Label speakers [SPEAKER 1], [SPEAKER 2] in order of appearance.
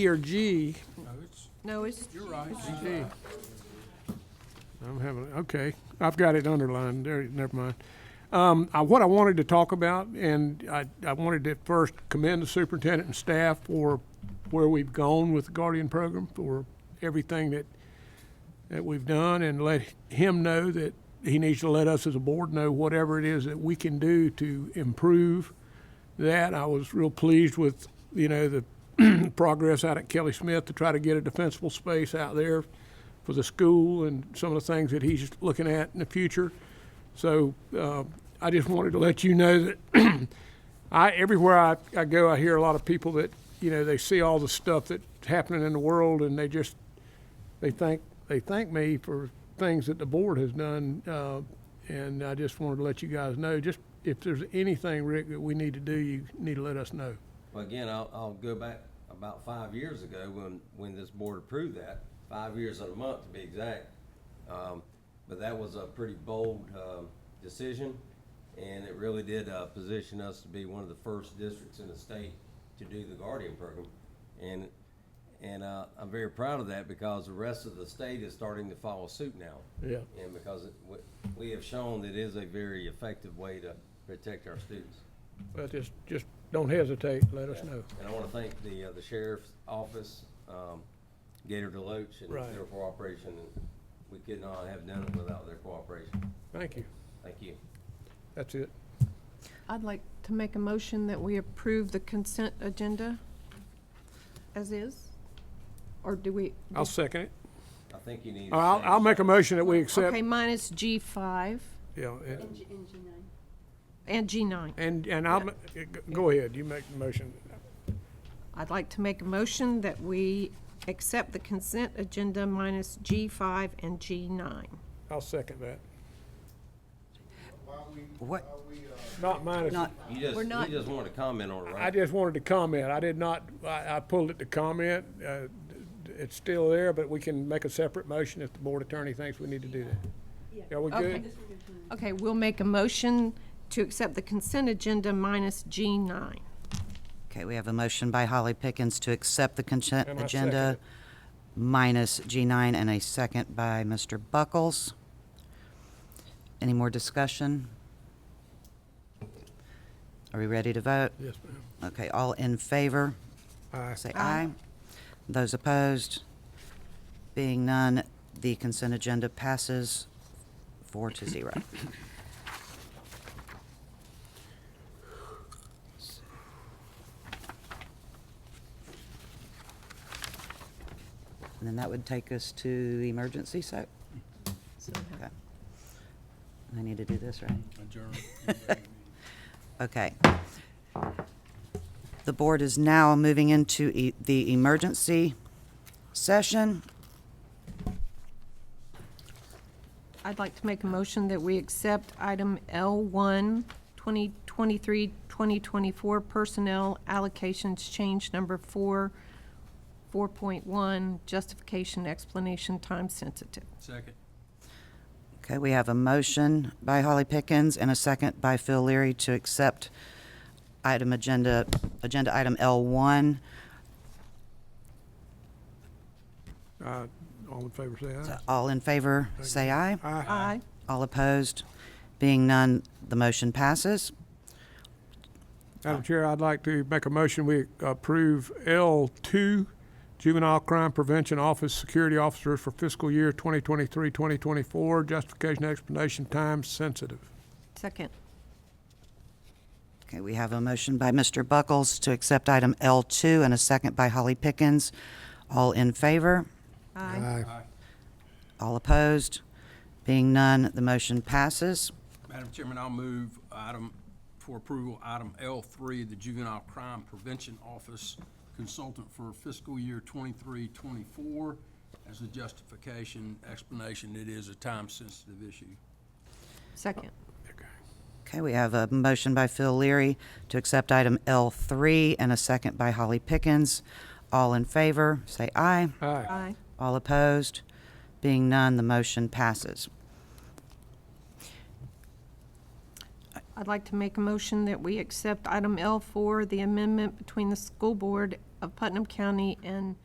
[SPEAKER 1] or G,
[SPEAKER 2] No, it's,
[SPEAKER 1] G. I'm having, okay, I've got it underlined, there, never mind. Um, I, what I wanted to talk about, and I, I wanted to first commend the superintendent and staff for where we've gone with the Guardian program, for everything that, that we've done, and let him know that he needs to let us as a board know whatever it is that we can do to improve that. I was real pleased with, you know, the progress out at Kelly Smith to try to get a defensible space out there for the school and some of the things that he's looking at in the future. So uh, I just wanted to let you know that I everywhere I, I go, I hear a lot of people that you know they see all the stuff that's happening in the world and they just they thank they thank me for things that the board has done. Uh, and I just wanted to let you guys know just if there's anything, Rick, that we need to do, you need to let us know.
[SPEAKER 3] Well, again, I'll, I'll go back about five years ago when, when this board approved that, five years and a month to be exact. Um, but that was a pretty bold, um, decision, and it really did, uh, position us to be one of the first districts in the state to do the Guardian program. And, and, uh, I'm very proud of that because the rest of the state is starting to follow suit now.
[SPEAKER 1] Yeah.
[SPEAKER 3] And because it- we, we have shown that it is a very effective way to protect our students.
[SPEAKER 1] Well, just, just don't hesitate, let us know.
[SPEAKER 3] And I want to thank the, uh, the sheriff's office, um, Gator Deloach and
[SPEAKER 1] Right.
[SPEAKER 3] their cooperation. and We could not have done it without their cooperation.
[SPEAKER 1] Thank you.
[SPEAKER 3] Thank you.
[SPEAKER 1] That's it.
[SPEAKER 2] I'd like to make a motion that we approve the consent agenda as is? Or do we?
[SPEAKER 1] I'll second it.
[SPEAKER 3] I think you need. to
[SPEAKER 1] I'll,
[SPEAKER 3] say-
[SPEAKER 1] I'll make a motion that we accept,
[SPEAKER 2] Okay, minus G five
[SPEAKER 1] yeah, and-
[SPEAKER 2] and G nine.
[SPEAKER 1] and, and I'll, ma- go ahead, you make the motion.
[SPEAKER 2] I'd like to make a motion that we accept the consent agenda minus G five and G nine.
[SPEAKER 1] I'll second that.
[SPEAKER 4] What?
[SPEAKER 1] Not minus,
[SPEAKER 4] Not,
[SPEAKER 3] You just,
[SPEAKER 2] We're not-
[SPEAKER 3] you just wanted to comment on it,
[SPEAKER 1] I
[SPEAKER 3] right?
[SPEAKER 1] just wanted to comment, I did not, I, I pulled it to comment. Uh, It's still there, but we can make a separate motion if the board attorney thinks we need to do that. Are we
[SPEAKER 2] Okay.
[SPEAKER 1] good?
[SPEAKER 2] Okay, we'll make a motion to accept the consent agenda minus G nine.
[SPEAKER 4] okay, we have a motion by Holly Pickens to accept the consent
[SPEAKER 1] And I second
[SPEAKER 4] agenda
[SPEAKER 1] it.
[SPEAKER 4] minus G9 and a second by Mr. Buckles. Any more discussion? Are we ready to vote?
[SPEAKER 1] Yes, ma'am.
[SPEAKER 4] Okay, all in favor?
[SPEAKER 1] Aye.
[SPEAKER 4] Say aye. Those opposed? Being none, the consent agenda passes four to zero. And then that would take us to the emergency so Okay. I need to do this, right? Okay. The board is now moving into e- the emergency session.
[SPEAKER 2] I'd like to make a motion that we accept item L1, 2023-2024 Personnel Allocations Change Number 4, 4.1, Justification Explanation Time Sensitive.
[SPEAKER 4] Okay, we have a motion by Holly Pickens and a second by Phil Leary to accept item agenda, agenda item L1.
[SPEAKER 1] Uh, All in favor, say aye.
[SPEAKER 4] All in favor, say aye.
[SPEAKER 2] Aye.
[SPEAKER 4] All opposed, being none, the motion passes.
[SPEAKER 1] Madam Chair, I'd like to make a motion, we approve L2, Juvenile Crime Prevention Office Security Officers for fiscal year 2023, 2024, justification, explanation, time sensitive.
[SPEAKER 2] Second.
[SPEAKER 4] Okay, we have a motion by Mr. Buckles to accept item L2 and a second by Holly Pickens. All in favor?
[SPEAKER 2] Aye.
[SPEAKER 4] All opposed? Being none, the motion passes.
[SPEAKER 5] Madam Chairman, I'll move item, for approval, item L3, the Juvenile Crime Prevention Office Consultant for fiscal year 23-24. As a justification, explanation, it is a time-sensitive issue.
[SPEAKER 2] Second.
[SPEAKER 4] Okay, we have a motion by Phil Leary to accept item L3 and a second by Holly Pickens. All in favor, say aye.
[SPEAKER 1] Aye.
[SPEAKER 2] Aye.
[SPEAKER 4] All opposed? Being none, the motion passes.
[SPEAKER 2] I'd like to make a motion that we accept item L4, the amendment between the school board of Putnam County and